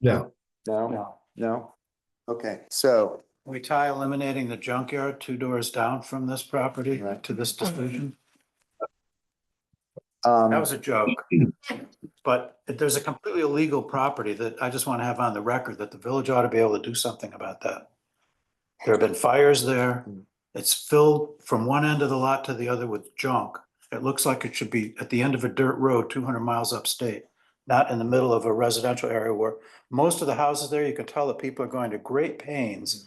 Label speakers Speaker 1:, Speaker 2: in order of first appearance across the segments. Speaker 1: No.
Speaker 2: No,
Speaker 3: No.
Speaker 2: no. Okay, so,
Speaker 3: We tie eliminating the junkyard two doors down from this property
Speaker 2: Right.
Speaker 3: to this decision. That
Speaker 2: um,
Speaker 3: was a joke. But there's a completely illegal property that I just want to have on the record that the village ought to be able to do something about that. There have been fires there. It's filled from one end of the lot to the other with junk. It looks like it should be at the end of a dirt road two hundred miles upstate, not in the middle of a residential area where most of the houses there, you can tell that people are going to great pains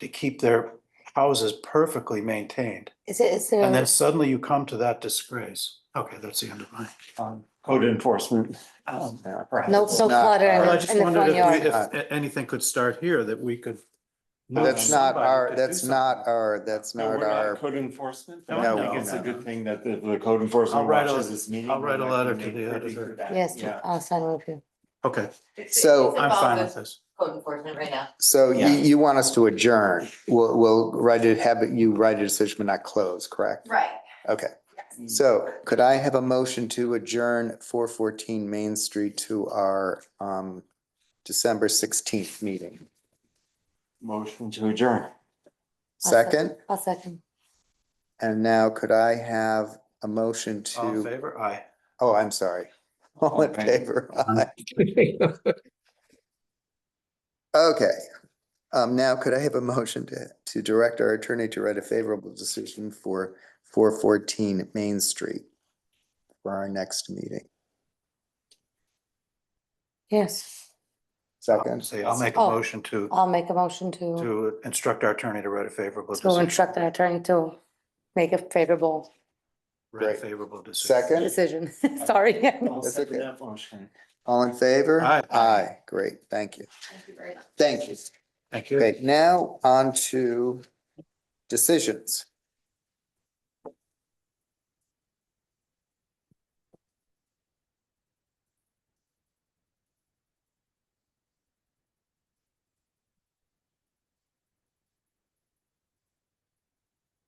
Speaker 3: to keep their houses perfectly maintained.
Speaker 4: Is it, is
Speaker 3: And
Speaker 4: there,
Speaker 3: then suddenly you come to that disgrace. Okay, that's the end of mine.
Speaker 5: on code enforcement.
Speaker 3: Um,
Speaker 2: yeah.
Speaker 5: perhaps.
Speaker 4: no,
Speaker 2: it's
Speaker 4: no
Speaker 2: not
Speaker 4: clutter
Speaker 2: our-
Speaker 3: Well, I
Speaker 4: in
Speaker 3: just
Speaker 4: in the
Speaker 3: wondered
Speaker 4: front
Speaker 3: if, we-
Speaker 4: yard?
Speaker 3: if a- anything could start here that we could.
Speaker 2: that's not our, that's not our, that's
Speaker 5: No,
Speaker 2: not
Speaker 5: we're
Speaker 2: our,
Speaker 5: Code enforcement.
Speaker 3: No,
Speaker 5: I
Speaker 3: no,
Speaker 5: think it's a
Speaker 2: no.
Speaker 5: good thing that the, the code enforcement
Speaker 3: I'll write a-
Speaker 5: watches this meeting.
Speaker 3: I'll write a
Speaker 5: and I
Speaker 3: letter
Speaker 5: can
Speaker 3: to
Speaker 5: make
Speaker 3: the
Speaker 5: pretty
Speaker 3: editor.
Speaker 5: good that,
Speaker 4: Yes,
Speaker 5: yeah.
Speaker 4: to- I'll sign with you.
Speaker 3: Okay,
Speaker 2: So-
Speaker 3: I'm fine with this.
Speaker 4: Code enforcement right now.
Speaker 2: so you,
Speaker 5: Yeah.
Speaker 2: you want us to adjourn. We'll, we'll write it, have it- you write a decision, but not close, correct?
Speaker 6: Right.
Speaker 2: Okay,
Speaker 6: Yes.
Speaker 2: so could I have a motion to adjourn four fourteen Main Street to our, um, December sixteenth meeting?
Speaker 5: Motion to adjourn.
Speaker 4: I'll sec-
Speaker 2: Second,
Speaker 4: I'll second.
Speaker 2: and now could I have a motion
Speaker 3: All in
Speaker 2: to,
Speaker 3: favor? Aye.
Speaker 2: oh, I'm sorry. All in
Speaker 5: Okay.
Speaker 2: favor? Aye. Okay, um, now could I have a motion to, to direct our attorney to write a favorable decision for four fourteen Main Street for our next meeting?
Speaker 4: Yes,
Speaker 2: Second,
Speaker 3: Say, I'll make a
Speaker 4: Oh.
Speaker 3: motion to,
Speaker 4: I'll make a motion to,
Speaker 3: to instruct our attorney to write a favorable
Speaker 4: to
Speaker 3: decision.
Speaker 4: instruct our attorney to make a favorable
Speaker 3: Write a
Speaker 2: Great.
Speaker 3: favorable decision.
Speaker 2: second,
Speaker 4: decision. Sorry.
Speaker 5: I'll
Speaker 2: That's
Speaker 5: second
Speaker 2: okay.
Speaker 5: that motion.
Speaker 2: all in favor?
Speaker 3: Aye.
Speaker 2: Aye, great, thank you,
Speaker 6: Thank you very much.
Speaker 2: thank you.
Speaker 3: Thank you.
Speaker 2: Okay, now on to decisions.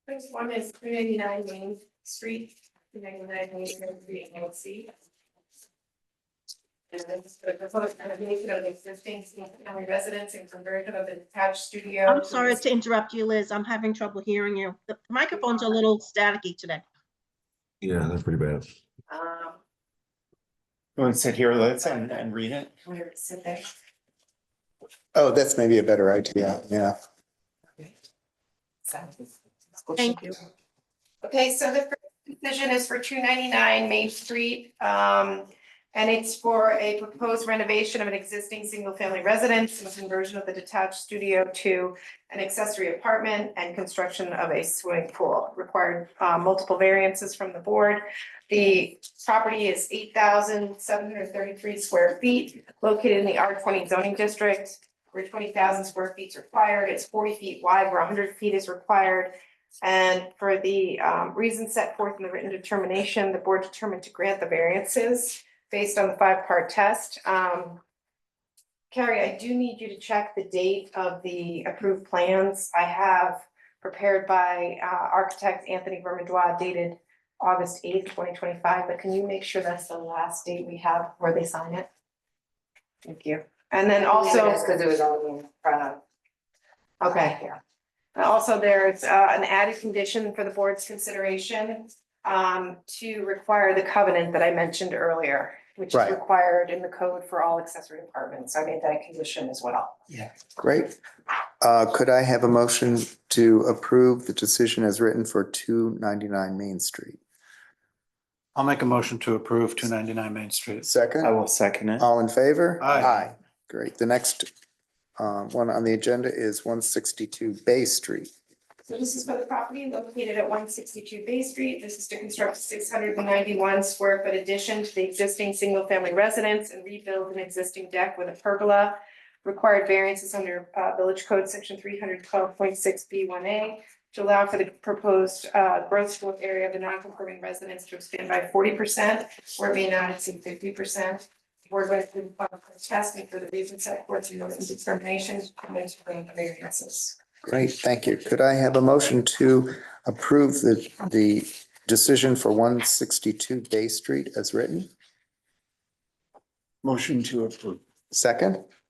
Speaker 6: Next one is three ninety-nine Main Street, three ninety-nine Main Street, NLC. And this is the proposed renovation of the existing single-family residence and conversion of an attached studio.
Speaker 7: I'm sorry to interrupt you, Liz. I'm having trouble hearing you. The microphone's a little staticky today.
Speaker 1: Yeah, that's pretty bad.
Speaker 6: Um,
Speaker 5: You want to sit here, let's, and, and read it?
Speaker 6: where it's sit there.
Speaker 2: Oh, that's maybe a better idea, yeah.
Speaker 7: Thank you.
Speaker 6: Okay, so the first decision is for two ninety-nine Main Street, um, and it's for a proposed renovation of an existing single-family residence and conversion of the detached studio to an accessory apartment and construction of a swimming pool. Required, uh, multiple variances from the board. The property is eight thousand seven hundred thirty-three square feet, located in the R twenty zoning district, where twenty thousand square feet is required. It's forty feet wide, where hundred feet is required. And for the um, reasons set forth in the written determination, the board determined to grant the variances based on the five-part test. Um, Carrie, I do need you to check the date of the approved plans I have prepared by uh, architect Anthony Vermandois dated August eighth, twenty twenty-five, but can you make sure that's the last date we have where they sign it? Thank you. And then also.
Speaker 4: because it was on the front of.
Speaker 6: Okay. And Also, there's uh, an added condition for the board's consideration um, to require the covenant that I mentioned earlier, which is
Speaker 2: Right.
Speaker 6: required in the code for all accessory apartments. So I made that a condition as well.
Speaker 2: Great. Uh, could I have a motion to approve the decision as written for two ninety-nine Main Street?
Speaker 3: I'll make a motion to approve two ninety-nine Main Street.
Speaker 5: I
Speaker 2: Second,
Speaker 5: will second it.
Speaker 2: all in favor?
Speaker 3: Aye.
Speaker 2: Great. The next, um, one on the agenda is one sixty-two Bay Street.
Speaker 6: So this is for the property located at one sixty-two Bay Street. This is to construct six hundred and ninety-one square foot addition to the existing single-family residence and rebuild an existing deck with a pergola. Required variances under uh, Village Code Section three hundred twelve point six B one A to allow for the proposed uh, gross floor area of the non-conforming residence to expand by forty percent or may not exceed fifty percent. Board went through the test and for the reasons set forth in notice of determination, comments from the variances.
Speaker 2: Great, thank you. Could I have a motion to approve the, the decision for one sixty-two Bay Street as written?
Speaker 5: Motion to approve.
Speaker 2: Second,